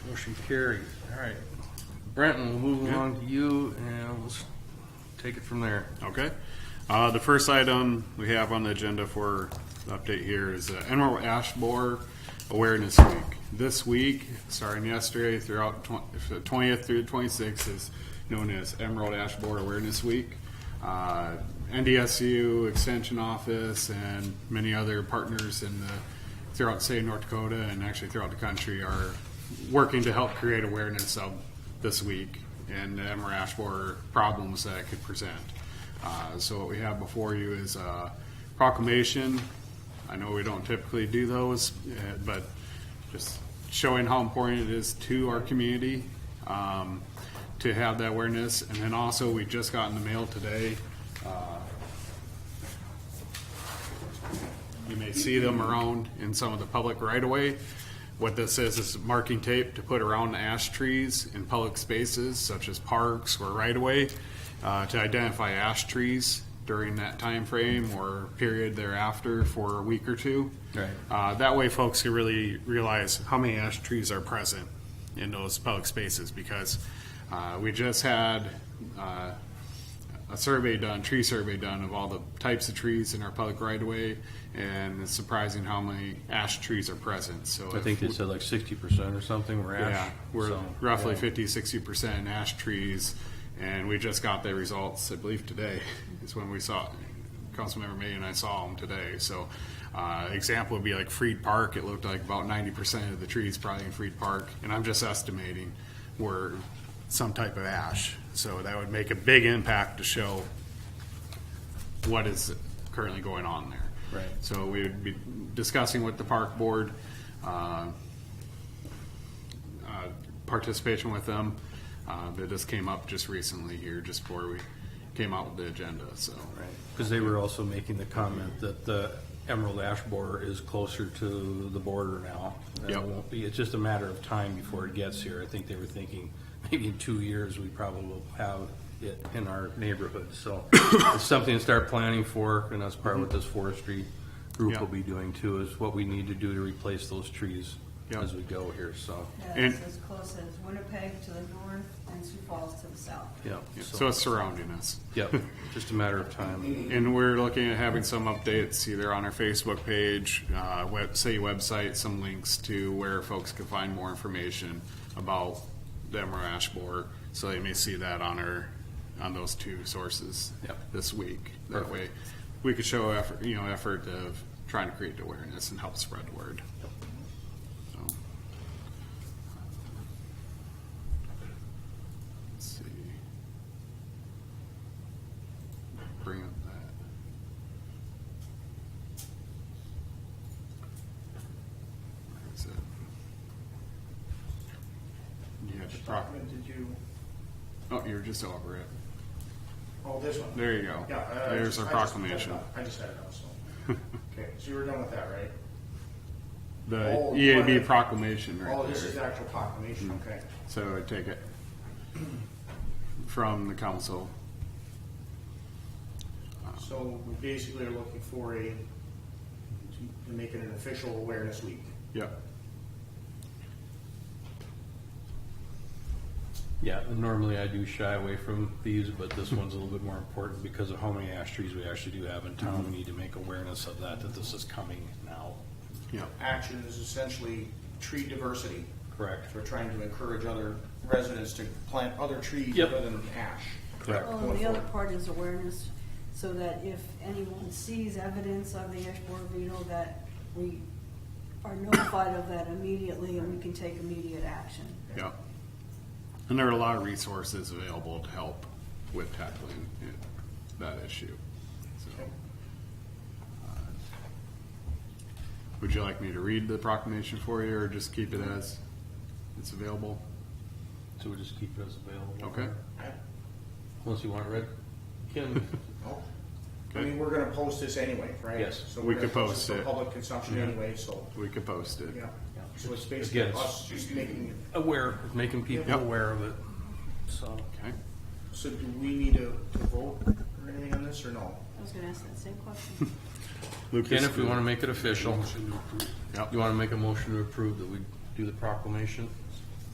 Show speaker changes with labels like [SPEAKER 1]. [SPEAKER 1] Motion carried. All right. Brenton, we'll move along to you and we'll s- take it from there.
[SPEAKER 2] Okay. Uh, the first item we have on the agenda for the update here is uh, Emerald Ash Borer Awareness Week. This week, starting yesterday throughout the twentieth through the twenty-sixth, is known as Emerald Ash Borer Awareness Week. Uh, NDSU Extension Office and many other partners in the throughout the state of North Dakota and actually throughout the country are working to help create awareness of this week and the Emerald Ash Borer problems that it could present. Uh, So what we have before you is a proclamation. I know we don't typically do those, eh, but just showing how important it is to our community um, to have that awareness. And then also, we just got in the mail today, You may see them around in some of the public right of way. What this is, is marking tape to put around the ash trees in public spaces such as parks or right of way, uh, to identify ash trees during that time frame or period thereafter for a week or two.
[SPEAKER 1] Right.
[SPEAKER 2] Uh, that way folks can really realize how many ash trees are present in those public spaces because, uh, we just had, uh, a survey done, tree survey done of all the types of trees in our public right of way, and it's surprising how many ash trees are present, so.
[SPEAKER 1] I
[SPEAKER 2] if
[SPEAKER 1] think they
[SPEAKER 2] we-
[SPEAKER 1] said like sixty percent or something were ash.
[SPEAKER 2] Yeah, we're
[SPEAKER 1] so-
[SPEAKER 2] roughly
[SPEAKER 1] yeah.
[SPEAKER 2] fifty, sixty percent ash trees, and we just got the results, I believe today, is when we saw, Councilmember May and I saw them today, so. Uh, example would be like Freed Park, it looked like about ninety percent of the trees probably in Freed Park, and I'm just estimating, were some type of ash. So that would make a big impact to show what is currently going on there.
[SPEAKER 1] Right.
[SPEAKER 2] So we would be discussing with the park board, uh, uh, participation with them. Uh, That just came up just recently here, just before we came out with the agenda, so.
[SPEAKER 1] Right, because they were also making the comment that the Emerald Ash Borer is closer to the border now. And It
[SPEAKER 2] Yep.
[SPEAKER 1] won't be, it's just a matter of time before it gets here. I think they were thinking, maybe in two years, we probably will have it in our neighborhood. So it's something to start planning for, and that's part of what this forestry group
[SPEAKER 2] Yeah.
[SPEAKER 1] will be doing too, is what we need to do to replace those trees
[SPEAKER 2] Yeah.
[SPEAKER 1] as we go here, so,
[SPEAKER 3] Yeah,
[SPEAKER 2] And-
[SPEAKER 3] it's as close as Winnipeg to the north and Sioux Falls to the south.
[SPEAKER 1] yeah.
[SPEAKER 2] yeah,
[SPEAKER 1] so-
[SPEAKER 2] So it's surrounding us.
[SPEAKER 1] Yeah, just a matter of time.
[SPEAKER 2] And we're looking at having some updates either on our Facebook page, uh, web, city website, some links to where folks can find more information about the Emerald Ash Borer. So they may see that on our, on those two sources
[SPEAKER 1] Yep.
[SPEAKER 2] this week. That
[SPEAKER 1] Perfect.
[SPEAKER 2] way, we could show effort, you know, effort of trying to create awareness and help spread the word. So. Let's see. Bring up that. Where is it? You have the prop,
[SPEAKER 4] document did you,
[SPEAKER 2] oh, you're just over it.
[SPEAKER 4] oh, this one?
[SPEAKER 2] There you go.
[SPEAKER 4] Yeah. uh, I- I
[SPEAKER 2] There's
[SPEAKER 4] just-
[SPEAKER 2] our
[SPEAKER 4] I just-
[SPEAKER 2] proclamation.
[SPEAKER 4] I just had it up, so. Okay, so you were done with that, right?
[SPEAKER 2] The
[SPEAKER 4] Oh,
[SPEAKER 2] EAB
[SPEAKER 4] right.
[SPEAKER 2] proclamation right
[SPEAKER 4] Oh, this is the
[SPEAKER 2] there.
[SPEAKER 4] actual proclamation,
[SPEAKER 2] Mm-hmm.
[SPEAKER 4] okay.
[SPEAKER 2] So I take it from the council.
[SPEAKER 4] So we basically are looking for a, to- to make it an official awareness week.
[SPEAKER 2] Yep.
[SPEAKER 1] Yeah, and normally I do shy away from these, but this one's a little bit more important because of how many ash trees we actually do have in town. We need to make awareness of that, that this is coming now.
[SPEAKER 2] Yep.
[SPEAKER 4] Action is essentially tree diversity.
[SPEAKER 1] Correct.
[SPEAKER 4] So we're trying to encourage other residents to plant other trees
[SPEAKER 1] Yep.
[SPEAKER 4] other than ash.
[SPEAKER 1] Correct.
[SPEAKER 3] Well, Oh, and the other part is awareness, so that if anyone sees evidence of the ash borer beetle, that we are notified of that immediately and we can take immediate action.
[SPEAKER 2] Yeah. And there are a lot of resources available to help with tackling it, that issue, so. uh, Would you like me to read the proclamation for you, or just keep it as it's available?
[SPEAKER 1] So we'll just keep it as available.
[SPEAKER 2] Okay.
[SPEAKER 4] I-
[SPEAKER 1] Unless you want it read. Kim,
[SPEAKER 4] no. I
[SPEAKER 2] Okay.
[SPEAKER 4] mean, we're gonna post this anyway, right?
[SPEAKER 1] Yes.
[SPEAKER 4] So
[SPEAKER 2] We
[SPEAKER 4] we're gonna
[SPEAKER 2] could post
[SPEAKER 4] this
[SPEAKER 2] it.
[SPEAKER 4] For public consumption anyway, so,
[SPEAKER 2] We could post it.
[SPEAKER 4] yeah.
[SPEAKER 1] Yeah.
[SPEAKER 4] So it's basically
[SPEAKER 1] Again, it's-
[SPEAKER 4] us just making it
[SPEAKER 1] aware, making people
[SPEAKER 2] Yep.
[SPEAKER 1] aware of it, so.
[SPEAKER 2] Okay,
[SPEAKER 4] So do we need to, to vote or anything on this or no?
[SPEAKER 3] I was gonna ask that same question.
[SPEAKER 1] Ken, if we want to make it official,
[SPEAKER 2] Yep.
[SPEAKER 1] you want to make a motion to approve that we do the proclamation?